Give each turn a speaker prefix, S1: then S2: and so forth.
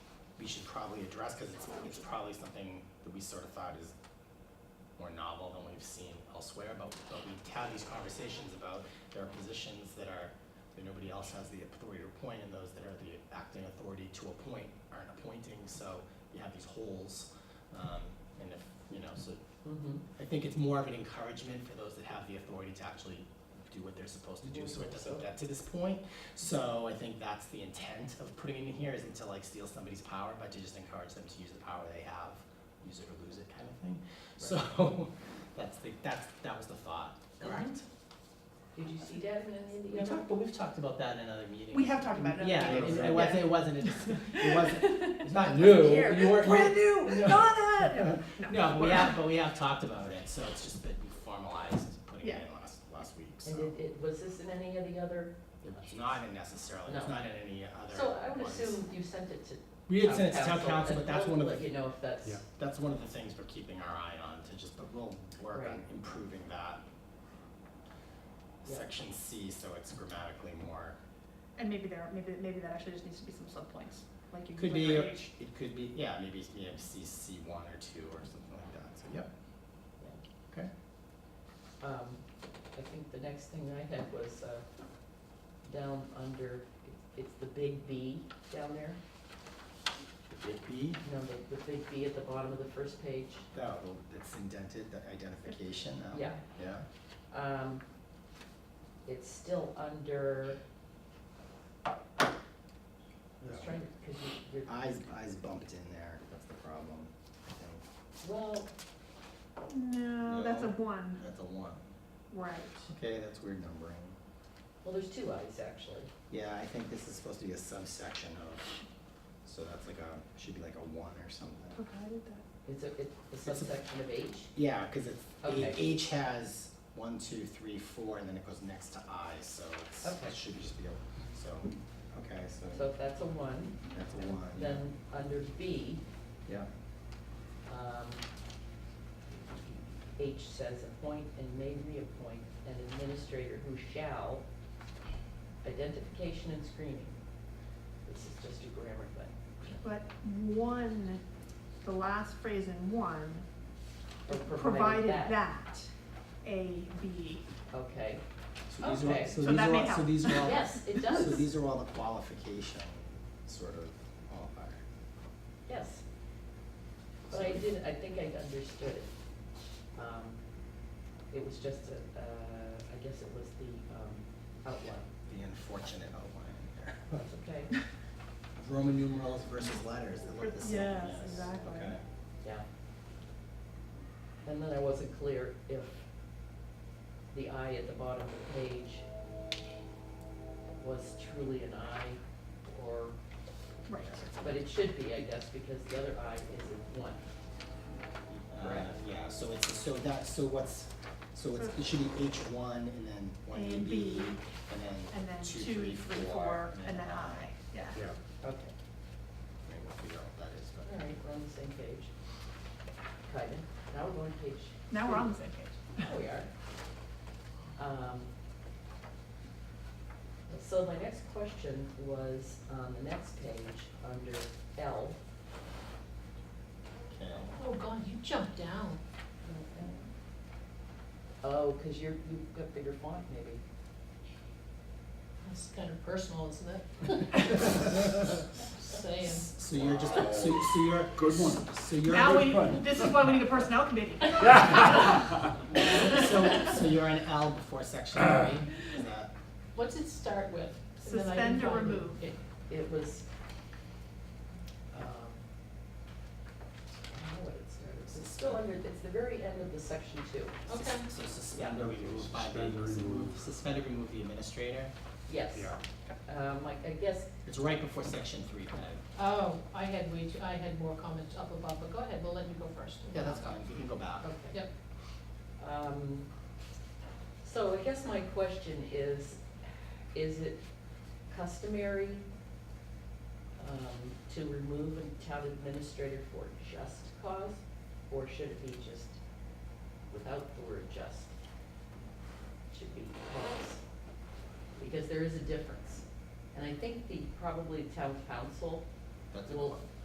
S1: we should probably address, because it's, it's probably something that we sort of thought is more novel than we've seen elsewhere, but, but we have these conversations about there are positions that are, that nobody else has the authority to appoint, and those that are the acting authority to appoint aren't appointing, so you have these holes. Um, and if, you know, so
S2: Mm-hmm.
S1: I think it's more of an encouragement for those that have the authority to actually do what they're supposed to do, so it doesn't get to this point. So I think that's the intent of putting it in here, isn't to like steal somebody's power, but to just encourage them to use the power they have, use it or lose it kind of thing. So, that's the, that's, that was the thought, correct?
S2: Did you see that in any of the
S1: We
S2: other?
S1: talked, but we've talked about that in other meetings.
S3: We have talked about it.
S1: Yeah, it, it
S3: Yeah.
S1: wasn't, it wasn't, a dis- it wasn't, it's not
S3: Wasn't
S1: new,
S3: here.
S1: you weren't.
S3: Brand new,
S1: No.
S3: not it.
S1: No, but we have, but we have talked about it, so it's just that we formalized putting it in last, last week, so.
S2: And it, it, was this in any of the other?
S1: It's not in necessarily, it's
S2: No.
S1: not in any other ones.
S2: So I would assume you sent it to.
S1: We had sent it to
S2: town
S1: town council, but
S2: and
S1: that's
S2: we'll
S1: one of the,
S2: let you know if that's.
S4: Yeah.
S1: that's one of the things we're keeping our eye on to just, but we'll work on
S2: Right.
S1: improving that.
S2: Yeah.
S1: Section C, so it's grammatically more,
S3: And maybe there, maybe, maybe that actually just needs to be some subpoints, like you.
S1: could
S3: like
S1: be,
S3: right each-
S1: it could be, yeah, maybe it's, you know, C, C one or two or something like that, so, yep. Okay.
S2: Um, I think the next thing I had was, uh, down under, it's- it's the big B down there,
S1: The big B,
S2: you know, the, the big B at the bottom of the first page.
S1: that, it's indented, the identification, um,
S2: Yeah.
S1: Yeah,
S2: Um, it's still under. I was
S1: Yeah.
S2: trying to, because you, you're,
S1: eyes, eyes bumped in there, that's the problem, I think,
S2: well,
S3: No, that's a one,
S1: that's a one.
S3: right.
S1: Okay, that's weird numbering.
S2: well, there's two eyes actually.
S1: Yeah, I think this is supposed to be a subsection of, so that's like a, should be like a one or something.
S3: Okay, I did that.
S2: It's a, it's
S1: a-
S2: a subsection of H.
S1: Yeah, cause it's,
S2: Okay.
S1: H- H has one, two, three, four, and then it goes next to I, so it's,
S2: Okay.
S1: it should just be a, so, okay,
S2: So
S1: so
S2: if that's a one,
S1: that's a one, yeah.
S2: then under B,
S1: Yeah,
S2: um, H says appoint and may reappoint an administrator who shall identification and screening. This is just a grammar thing.
S3: But one, the last phrase in one,
S2: Or
S3: provided that, A, B.
S2: Okay,
S1: so these are, all-
S2: Okay.
S1: so
S3: So
S1: these
S3: that
S1: are,
S3: may
S1: all- so
S3: help.
S1: these are all,
S2: yes, it
S1: so
S2: does,
S1: these are all the qualification sort of qualifier.
S2: yes. But I did, I think I understood it. Um, it was just a, uh, I guess it was the, um, outline.
S1: The unfortunate outline here.
S2: That's okay,
S1: Roman numerals versus letters that look the same.
S3: Yes, exactly.
S1: Okay.
S2: yeah. And then I wasn't clear if the I at the bottom of the page was truly an I or,
S3: Right.
S2: but it should be, I guess, because the other I isn't one.
S1: Uh,
S2: Right.
S1: Yeah, so it's, so that, so what's, so it's, it should be H one and then one
S3: A
S1: A B,
S3: and B,
S1: and
S3: And then
S1: then two,
S3: two, three, four, and then I, yeah.
S1: Yeah,
S2: Okay,
S1: I mean, we'll figure out what that is,
S2: all
S1: but.
S2: right, we're on the same page. Kinda, now we're on page
S3: Now we're on the same page.
S2: There
S1: Oh,
S2: we are. Um, So my next question was on the next page, under L.
S1: Okay.
S5: Oh God, you jumped down.
S2: Oh, because you're, you've got bigger font maybe.
S5: That's kind of personal, isn't it? Saying.
S1: So you're just, so, so you're. Good one. So you're,
S3: Now
S1: so,
S3: we, this is why we need a personnel committee.
S1: so you're an L before section three, is that,
S5: What's it start with? And then I can
S3: Suspend or
S5: find it.
S3: remove.
S5: It-
S2: It was, um, I don't know what it started, it's still under, it's the very end of the section two.
S5: Okay,
S1: so suspend or remove by the,
S4: Suspend or remove.
S1: suspend or remove the administrator?
S2: Yes. Um, I, I guess,
S1: It's right before section three, Peg.
S5: oh, I had, we, I had more comments up above, but go ahead, we'll let you go first.
S1: Yeah, that's fine, you can go back.
S2: okay.
S5: Yep,
S2: Um, so I guess my question is, is it customary um, to remove a town administrator for just cause? Or should it be just without the word just? Should be cause. Because there is a difference. And I think the, probably town council
S1: That's a-
S2: will